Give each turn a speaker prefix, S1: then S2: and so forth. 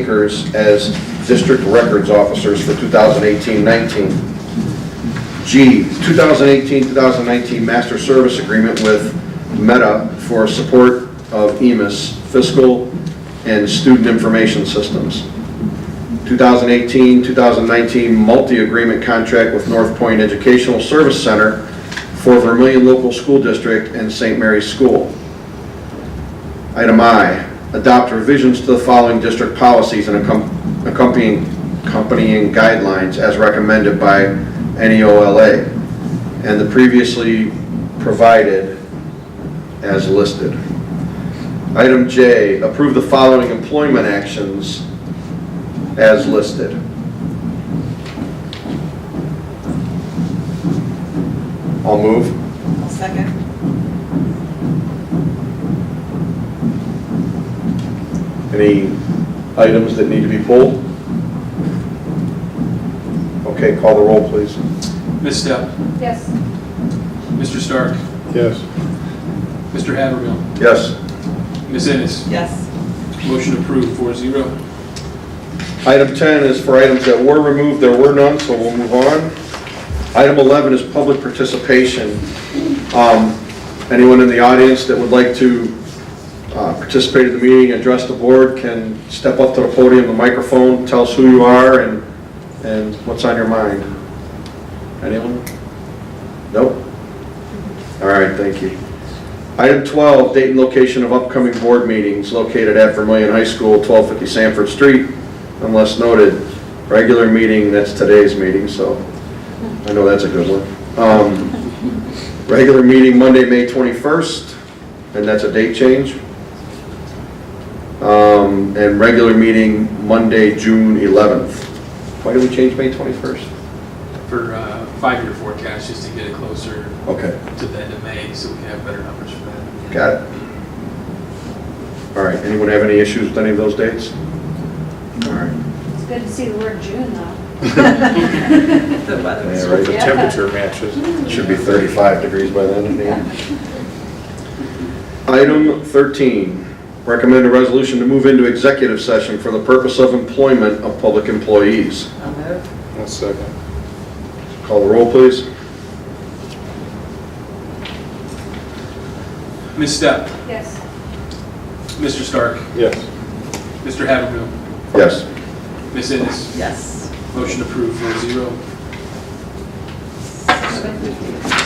S1: Akers as district records officers for 2018-19. G, 2018-2019 master service agreement with Meta for support of E EMIS fiscal and student information systems. 2018-2019 multi-agreement contract with North Point Educational Service Center for Vermillion Local School District and St. Mary's School. Item I, adopt revisions to the following district policies and accom- accompanying, accompanying guidelines as recommended by E NEOLA and the previously provided as listed. Item J, approve the following employment actions as listed. I'll move.
S2: I'll second.
S1: Any items that need to be pulled? Okay, call the roll, please.
S3: Ms. Step,
S4: Yes.
S3: Mr. Stark,
S1: Yes.
S3: Mr. Haverhill,
S1: Yes.
S3: Ms. Ennis,
S2: Yes.
S3: motion approved, four zero.
S1: Item 10 is for items that were removed, there were none, so we'll move on. Item 11 is public participation. Um, Anyone in the audience that would like to uh, participate in the meeting, address the board, can step up to the podium, the microphone, tell us who you are and, and what's on your mind. Anyone? Nope? All right, thank you. Item 12, date and location of upcoming board meetings located at Vermillion High School, 1250 Sanford Street, unless noted. Regular meeting, that's today's meeting, so I know that's a good one. Um, Regular meeting Monday, May 21st, and that's a date change. Um, And regular meeting Monday, June 11th. Why did we change May 21st?
S3: For uh, five-year forecast, just to get it closer
S1: Okay.
S3: to the end of May, so we can have better numbers for that.
S1: Got it. All right, anyone have any issues with any of those dates? All right.
S4: It's good to see the word June, though.
S2: The weather is
S1: Yeah, right.
S5: The
S4: Yeah.
S5: temperature matches.
S1: It Should be 35 degrees by then, yeah. Item 13, recommend a resolution to move into executive session for the purpose of employment of public employees.
S2: I'll move.
S5: One second.
S1: Call the roll, please.
S3: Ms. Step,
S4: Yes.
S3: Mr. Stark,
S5: Yes.
S3: Mr. Haverhill,
S1: Yes.
S3: Ms. Ennis,
S2: Yes.
S3: motion approved, four zero.